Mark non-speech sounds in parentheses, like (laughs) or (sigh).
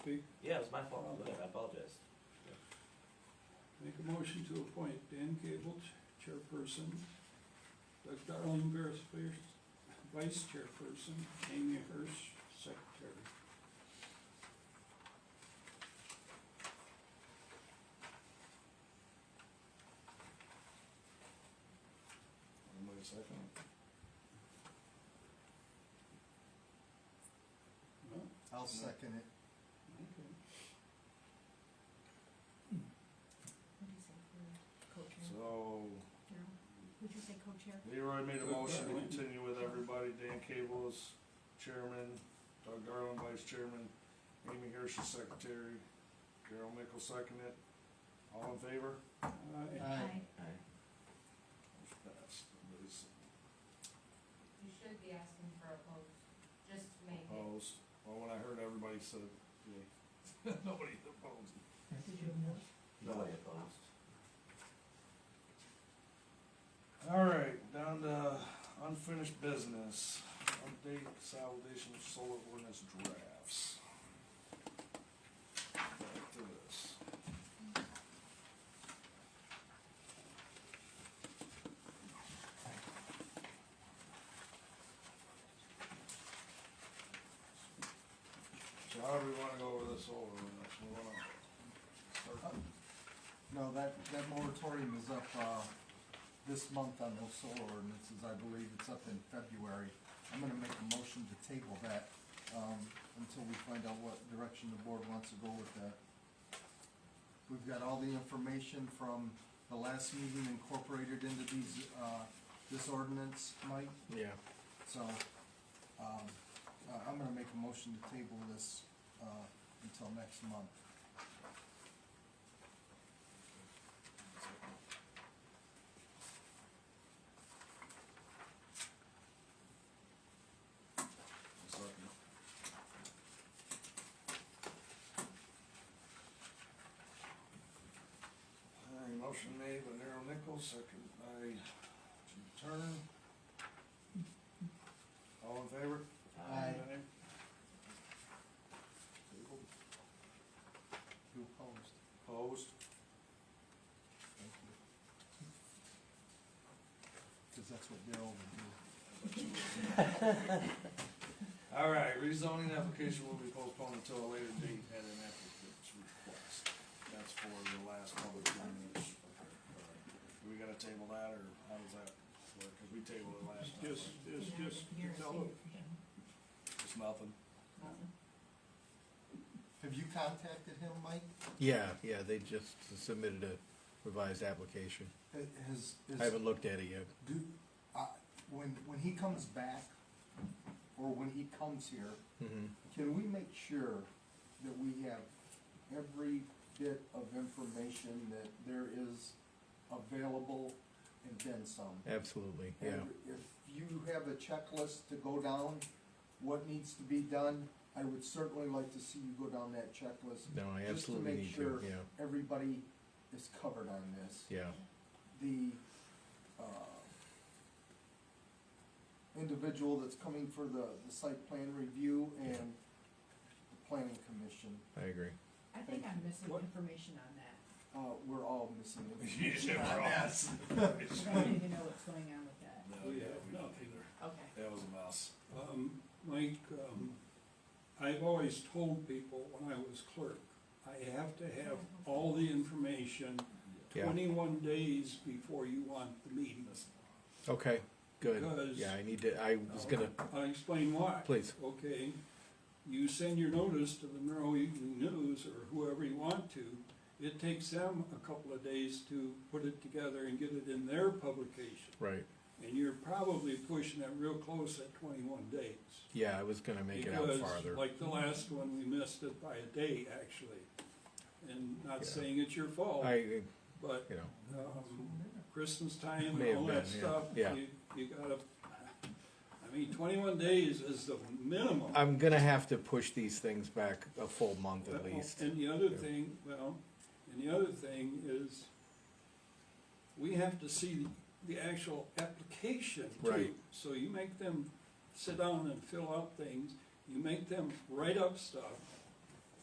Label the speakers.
Speaker 1: Speak,
Speaker 2: Yeah, it was my fault, I'm late, I apologize.
Speaker 1: make a motion to appoint Dan Gable, ch- chairperson, Doug Darling, vice vice chairperson, Amy Hirsch, secretary.
Speaker 3: Wait a second.
Speaker 1: No?
Speaker 3: I'll second it.
Speaker 1: Okay.
Speaker 4: What is it, your co-chair?
Speaker 3: So,
Speaker 4: No? Would you say co-chair?
Speaker 3: Leroy made a motion to continue with everybody, Dan Cable is chairman, Doug Darling vice chairman, Amy Hirsch is secretary, Carol Mickel seconded. All in favor?
Speaker 1: Aye.
Speaker 4: Aye.
Speaker 3: Motion passed. Nobody's
Speaker 5: You should be asking for a vote, just to make it.
Speaker 3: Opposed. Well, when I heard everybody said, yay. (laughs) Nobody opposed.
Speaker 4: Did you know?
Speaker 2: Nobody opposed.
Speaker 3: All right, down to unfinished business, update consolidation of solar ordinance drafts. Back to this. So how do we wanna go over this solar ordinance, we wanna start,
Speaker 6: No, that, that moratorium is up, uh, this month on those solar ordinances, I believe it's up in February. I'm gonna make a motion to table that, um, until we find out what direction the board wants to go with that. We've got all the information from the last meeting incorporated into these, uh, this ordinance, Mike,
Speaker 7: Yeah,
Speaker 6: so, um, I- I'm gonna make a motion to table this, uh, until next month.
Speaker 3: All right, motion made by Darryl Nichols, second by Jim Turner. All in favor?
Speaker 6: Aye.
Speaker 3: Tabled.
Speaker 6: You opposed?
Speaker 3: Opposed?
Speaker 6: Thank you. Cause that's what Daryl would do.
Speaker 3: All right, rezoning application will be postponed until a later date at an applicant's request. That's for the last public hearing. Okay, all right. Do we gotta table that, or how does that work? Cause we tabled it last time.
Speaker 1: Just,
Speaker 3: right?
Speaker 1: just,
Speaker 4: Yeah,
Speaker 1: just,
Speaker 4: you're
Speaker 1: tell
Speaker 4: safe
Speaker 1: them,
Speaker 4: for him.
Speaker 3: It's nothing.
Speaker 6: Have you contacted him, Mike?
Speaker 7: yeah, yeah, they just submitted a revised application.
Speaker 6: Ha- Has, is,
Speaker 7: I haven't looked at it yet.
Speaker 6: do, uh, when, when he comes back, or when he comes here,
Speaker 7: hmm
Speaker 6: can we make sure that we have every bit of information that there is available and then some?
Speaker 7: absolutely, yeah.
Speaker 6: And if you have a checklist to go down, what needs to be done, I would certainly like to see you go down that checklist.
Speaker 7: No, I
Speaker 6: Just to
Speaker 7: absolutely
Speaker 6: make
Speaker 7: need to,
Speaker 6: sure
Speaker 7: yeah,
Speaker 6: Everybody is covered on this.
Speaker 7: yeah,
Speaker 6: The, uh, individual that's coming for the, the site plan review and the planning commission,
Speaker 7: I agree.
Speaker 4: I think I'm missing
Speaker 3: What?
Speaker 4: information on that.
Speaker 6: uh, we're all missing
Speaker 3: (laughs)
Speaker 6: information
Speaker 3: Yeah,
Speaker 6: on
Speaker 3: we're all-
Speaker 6: that.
Speaker 3: (laughs)
Speaker 4: I don't even know what's going on with that.
Speaker 3: No,
Speaker 1: we
Speaker 3: yeah,
Speaker 1: have
Speaker 3: we-
Speaker 1: nothing there.
Speaker 4: Okay.
Speaker 3: That was a mess.
Speaker 1: Um, Mike, um, I've always told people when I was clerk, I have to have all the information
Speaker 7: Yeah.
Speaker 1: twenty-one days before you want the meeting.
Speaker 7: Okay, good.
Speaker 1: Because-
Speaker 7: Yeah, I need to, I was gonna,
Speaker 1: I'll explain why.
Speaker 7: Please.
Speaker 1: Okay, you send your notice to the Monroe Evening News or whoever you want to. It takes them a couple of days to put it together and get it in their publication.
Speaker 7: right,
Speaker 1: And you're probably pushing it real close at twenty-one days.
Speaker 7: yeah, I was gonna make it out farther.
Speaker 1: Because like the last one, we missed it by a day, actually. And not
Speaker 7: Yeah.
Speaker 1: saying it's your fault,
Speaker 7: I,
Speaker 1: but,
Speaker 7: you know,
Speaker 1: um, Christmas time and
Speaker 7: May have
Speaker 1: all that
Speaker 7: been, yeah,
Speaker 1: stuff,
Speaker 7: yeah.
Speaker 1: you, you gotta, I mean, twenty-one days is the minimum.
Speaker 7: I'm gonna have to push these things back a full month at
Speaker 1: Well,
Speaker 7: least.
Speaker 1: And the other
Speaker 7: Yeah.
Speaker 1: thing, well, and the other thing is, we have to see the actual application too.
Speaker 7: Right.
Speaker 1: So you make them sit down and fill out things, you make them write up stuff,